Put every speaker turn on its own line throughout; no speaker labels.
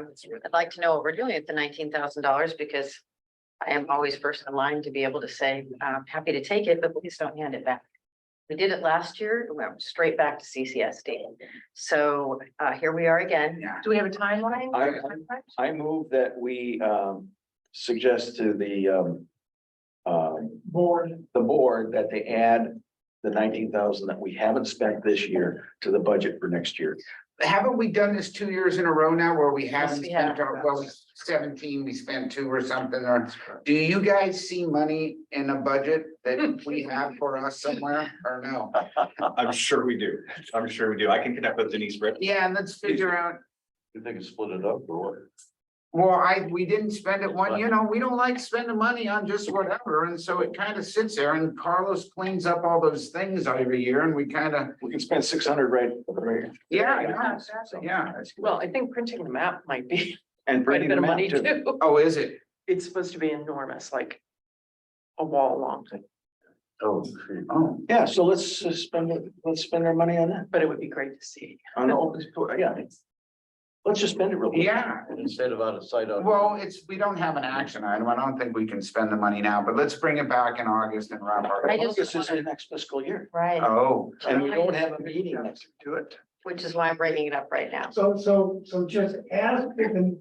um, I'd like to know what we're doing at the nineteen thousand dollars because. I am always first in line to be able to say, I'm happy to take it, but please don't hand it back. We did it last year, we went straight back to CCSD. So uh, here we are again.
Do we have a timeline?
I- I move that we um suggest to the um. um,
Board.
the board that they add the nineteen thousand that we haven't spent this year to the budget for next year.
Haven't we done this two years in a row now where we haven't
we
spent, our- well, we- seventeen, we spent two or something, or do you guys see money in a budget that we have for us somewhere or no?
I'm sure we do. I'm sure we do. I can connect with Denise Britt.
Yeah, and let's figure out,
You think it's split it up or
well, I, we didn't spend it one, you know, we don't like spending money on just whatever, and so it kind of sits there and Carlos cleans up all those things every year and we kind of,
We can spend six hundred right, right?
yeah, yeah, exactly, yeah.
Well, I think printing the map might be
And
quite a
bringing
bit
the
of
map
money
to,
too.
Oh, is it?
It's supposed to be enormous, like a wall long,
oh,
Oh,
yeah, so let's uh, spend, it- let's spend our money on that,
but it would be great to see.
on the open, yeah. Let's just spend it real. quick.
yeah.
Instead of out of sight out.
Well, it's, we don't have an action item. I don't think we can spend the money now, but let's bring it back in August and wrap our.
I just-
This is the next fiscal year
Right,
Oh,
and we don't have a meeting next to it.
which is why I'm bringing it up right now.
So, so, so just ask if the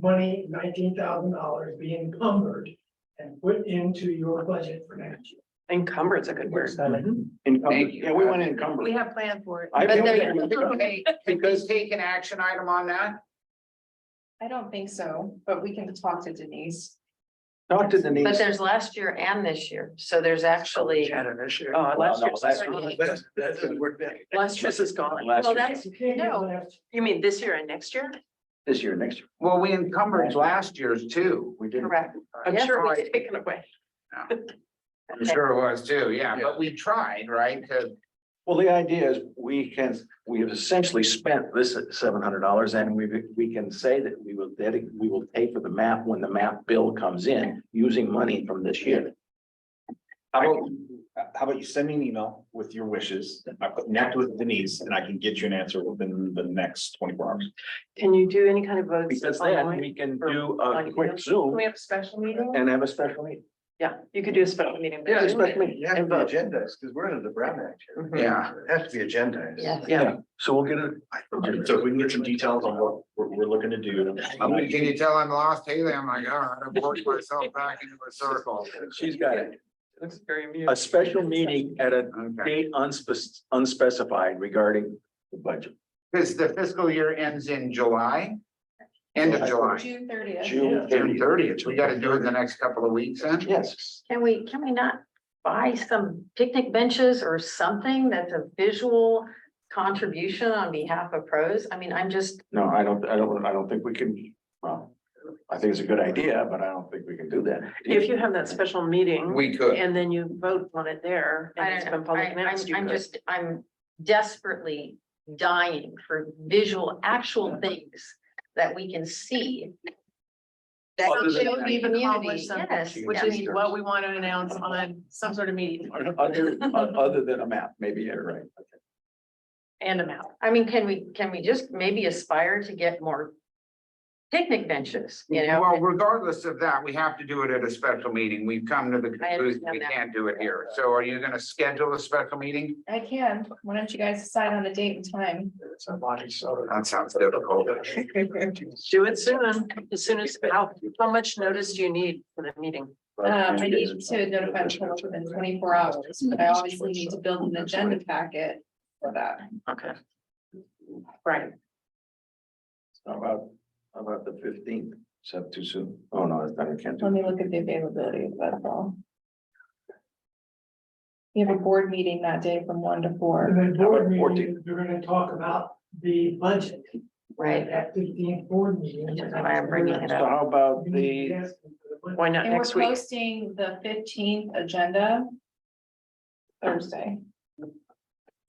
money, nineteen thousand dollars be encumbered and put into your budget for next year.
Encumbered's a good word.
Encumbered,
Thank you.
um, yeah, we want to encumber.
have planned for it.
I
But
feel
there-
that-
okay, can we take an action item on that?
I don't think so, but we can talk to Denise.
Talk to
But
Denise.
there's last year and this year, so there's actually, Oh.
Uh,
Well,
last
no,
year's,
that's-
already-
that's- that's- we're-
last year's is gone.
Last
well,
year,
that's,
You can't get
No.
last-
You mean this year and next year?
this year, next year,
Well, we encumbered last year's too.
we did.
correct.
I'm
Yeah.
sure it was taken away.
I'm sure it was too, yeah, but we tried, right? to-
Well, the idea is we can, we have essentially spent this seven hundred dollars and we, we can say that we will, that we will pay for the map when the map bill comes in using money from this year.
How about, how about you send me an email with your wishes? I connect with Denise and I can get you an answer within the next twenty-four hours.
Can you do any kind of votes?
Because then
online?
we can do a quick
Can
Zoom
we have a special meeting?
and have a special meeting.
Yeah, you could do a special meeting. but Zoom it.
Yeah,
And vote.
agendas, because we're under the Brown Act here.
Mhm.
Yeah,
It has to be agendas.
Yes.
Yeah,
So we'll get a
So if we can get some details on what we're, we're looking to do.
I mean, can you tell I'm lost, Haley? I'm like, "Oh, all right, I've worked myself back into a circle.
She's got it.
looks very
A
amusing.
special meeting at a
Okay,
date unspec- unspecified regarding the budget.
because the fiscal year ends in July, end of July,
June thirtieth.
June
June thirtieth.
thirtieth. We gotta do it in the next couple of weeks then.
Yes.
Can we, can we not buy some picnic benches or something that's a visual contribution on behalf of pros? I mean, I'm just,
No, I don't, I don't, I don't think we can, well, I think it's a good idea, but I don't think we can do that.
If you have that special meeting
We could.
and then you vote on it there
I
and it's been
don't know, I,
public
I'm,
announced, you
I'm
could.
just, I'm desperately dying for visual, actual things that we can see. That
Other than
show
that.
the community, yes,
Which
yes.
is what we want to announce on some sort of meeting
Other, other than a map, maybe, yeah, right.
and amount.
I mean, can we, can we just maybe aspire to get more picnic benches, you know?
Well, regardless of that, we have to do it at a special meeting. We've come to the conclusion we
understand that.
can't do it here. So are you gonna schedule a special meeting?
I can, why don't you guys decide on a date and time?
That sounds
Um,
difficult.
Do it soon, as soon as, how, how much notice do you need for the meeting?
Um, I need to notify the public within twenty-four hours, but I obviously need to build an agenda packet for that.
Okay. Right,
How about, how about the fifteenth? Is that too soon? Oh, no, I I can't do
Let me look at the availability of that all. We have a board meeting that day from one to
And
four.
then
How
board
about
meeting,
14?
you're gonna talk about the budget
Right,
at fifteen board meeting.
That's why I'm bringing it
So how about
You need to
the,
ask them for the budget.
why not
And we're
next week?
posting the fifteenth agenda. Thursday,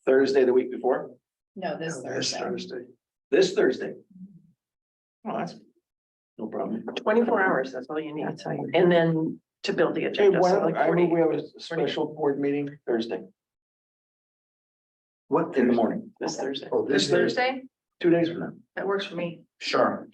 Thursday, the week before?
no,
Oh,
this Thursday.
This Thursday. Oh, that's no problem.
Twenty-four hours, that's all you need.
that's how you.
And then to build the
Hey,
agenda.
why
so
don't,
like
I mean,
40
we have a special board meeting Thursday. What? In the morning,
This Thursday.
this Thursday, two days from now.
That works for me.
Sure.